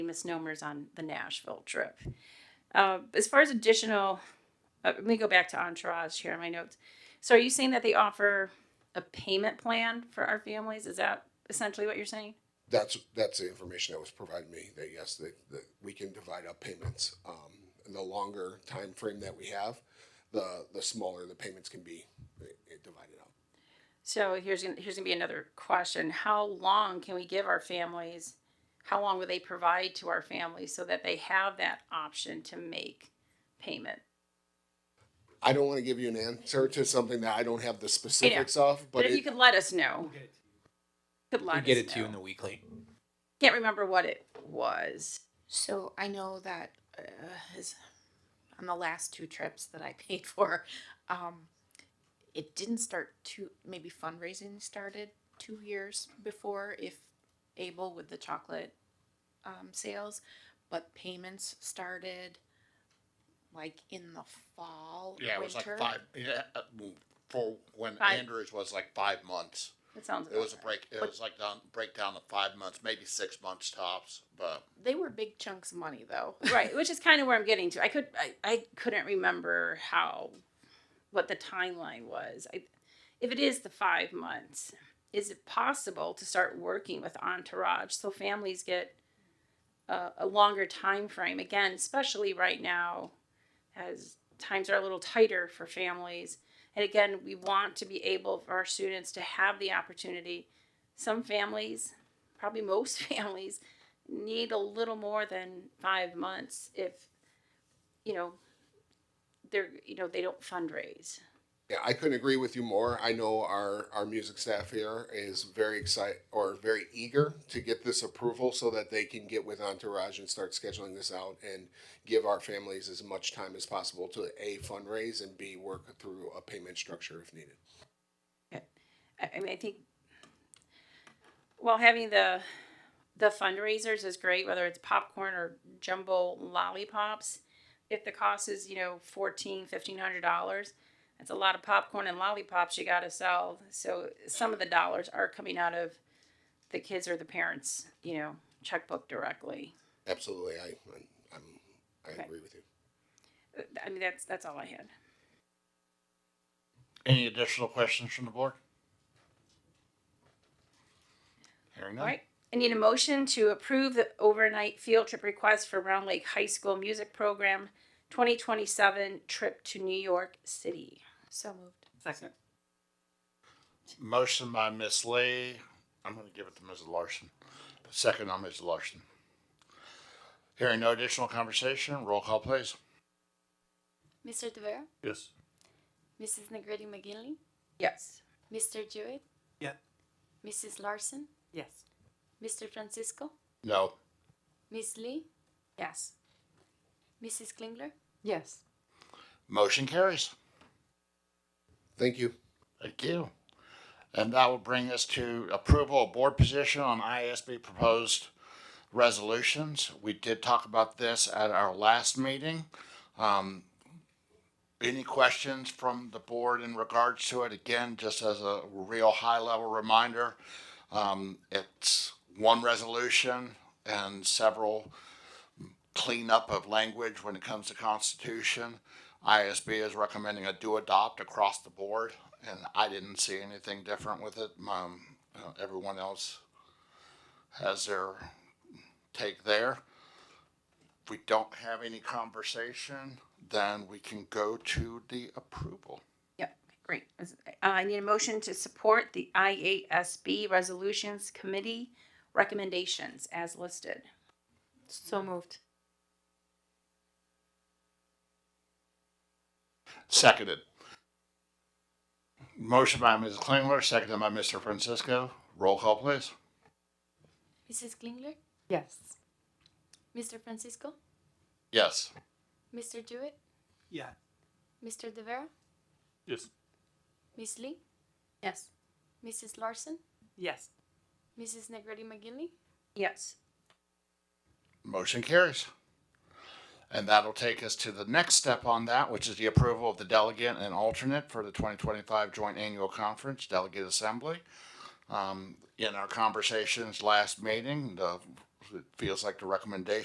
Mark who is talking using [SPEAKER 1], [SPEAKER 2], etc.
[SPEAKER 1] misnomers on the Nashville trip. Uh, as far as additional, uh, let me go back to Entourage here in my notes. So, are you saying that they offer a payment plan for our families? Is that essentially what you're saying?
[SPEAKER 2] That's, that's the information that was provided me, that yes, that, that we can divide up payments. Um, and the longer time frame that we have, the, the smaller the payments can be uh, uh, divided up.
[SPEAKER 1] So here's gonna, here's gonna be another question. How long can we give our families? How long will they provide to our families so that they have that option to make payment?
[SPEAKER 2] I don't want to give you an answer to something that I don't have the specifics of,
[SPEAKER 1] But
[SPEAKER 2] but
[SPEAKER 1] if you
[SPEAKER 2] it,
[SPEAKER 1] could let us know, could let
[SPEAKER 3] We
[SPEAKER 1] us
[SPEAKER 3] get it to you
[SPEAKER 1] know.
[SPEAKER 3] in the weekly.
[SPEAKER 1] Can't remember what it was.
[SPEAKER 4] So I know that uh, is on the last two trips that I paid for, um, it didn't start two. Maybe fundraising started two years before, if able, with the chocolate um, sales, but payments started like in the fall.
[SPEAKER 5] Yeah, it was like
[SPEAKER 4] winter.
[SPEAKER 5] five, yeah, uh, mm, for when
[SPEAKER 1] Five.
[SPEAKER 5] Andrews was like five months.
[SPEAKER 1] That sounds.
[SPEAKER 5] It was a
[SPEAKER 1] about
[SPEAKER 5] break, it was like down, breakdown of five months, maybe six months tops, but
[SPEAKER 4] They were big chunks of money, though.
[SPEAKER 1] right which is kind of where i'm getting to i could I, I couldn't remember how what the timeline was I, if it is the five months is it possible to start working with entourage so families get a, a longer time frame again especially right now as times are a little tighter for families and again we want to be able for our students to have the opportunity some families probably most families need a little more than five months if you know they're you know they don't fundraise
[SPEAKER 2] yeah, I couldn't agree with you more. I know our, our music staff here is very excited or very eager to get this approval so that they can get with Entourage and start scheduling this out and give our families as much time as possible to A, fundraise and B, work through a payment structure if needed.
[SPEAKER 1] I, I mean i think while having the the fundraisers is great whether it's popcorn or jumbo lollipops if the cost is you know fourteen fifteen hundred dollars that's a lot of popcorn and lollipops you got to sell so some of the dollars are coming out of the kids or the parents you know checkbook directly
[SPEAKER 2] Absolutely. I, I'm, I
[SPEAKER 1] Okay.
[SPEAKER 2] agree with you.
[SPEAKER 1] i mean that's that's all i had
[SPEAKER 5] Any additional questions from the board? Hearing
[SPEAKER 1] All
[SPEAKER 5] none.
[SPEAKER 1] right. I need a motion to approve the overnight field trip request for Round Lake High School Music Program 2027 trip to New York City.
[SPEAKER 4] So moved.
[SPEAKER 6] Second.
[SPEAKER 5] Motion by Ms. Lee. I'm gonna give it to Ms. Larson. Second on Ms. Larson. Hearing no additional conversation, roll call please.
[SPEAKER 7] Mr. Tavera,
[SPEAKER 5] Yes.
[SPEAKER 7] Mrs. Negretti McGinley,
[SPEAKER 1] Yes.
[SPEAKER 7] Mr. Jewett,
[SPEAKER 6] Yeah.
[SPEAKER 7] Mrs. Larson,
[SPEAKER 6] Yes.
[SPEAKER 7] Mr. Francisco,
[SPEAKER 5] No.
[SPEAKER 7] Miss Lee,
[SPEAKER 1] Yes.
[SPEAKER 7] Mrs. Klingler.
[SPEAKER 6] Yes.
[SPEAKER 5] Motion carries.
[SPEAKER 2] Thank you.
[SPEAKER 5] Thank you. And that will bring us to approval of board position on ISB proposed resolutions. We did talk about this at our last meeting. Um, any questions from the board in regards to it? Again, just as a real high level reminder, um, it's one resolution and several cleanup of language when it comes to constitution. ISB is recommending a do adopt across the board, and I didn't see anything different with it. Um, uh, everyone else has their take there. If we don't have any conversation, then we can go to the approval.
[SPEAKER 1] Yep. Great. Uh, I need a motion to support the IASB Resolutions Committee recommendations as listed.
[SPEAKER 6] So moved.
[SPEAKER 5] Seconded. Motion by Ms. Klingler, seconded by Mr. Francisco. Roll call, please.
[SPEAKER 7] Mrs. Klingler,
[SPEAKER 6] Yes.
[SPEAKER 7] Mr. Francisco,
[SPEAKER 5] Yes.
[SPEAKER 7] Mr. Jewett,
[SPEAKER 6] Yeah.
[SPEAKER 7] Mr. Tavera,
[SPEAKER 3] Yes.
[SPEAKER 7] Miss Lee,
[SPEAKER 1] Yes.
[SPEAKER 7] Mrs. Larson,
[SPEAKER 6] Yes.
[SPEAKER 7] Mrs. Negretti McGinley.
[SPEAKER 1] Yes.
[SPEAKER 5] Motion carries. And that'll take us to the next step on that, which is the approval of the delegate and alternate for the 2025 Joint Annual Conference Delegate Assembly. Um, in our conversations last meeting, the, it feels like the recommendation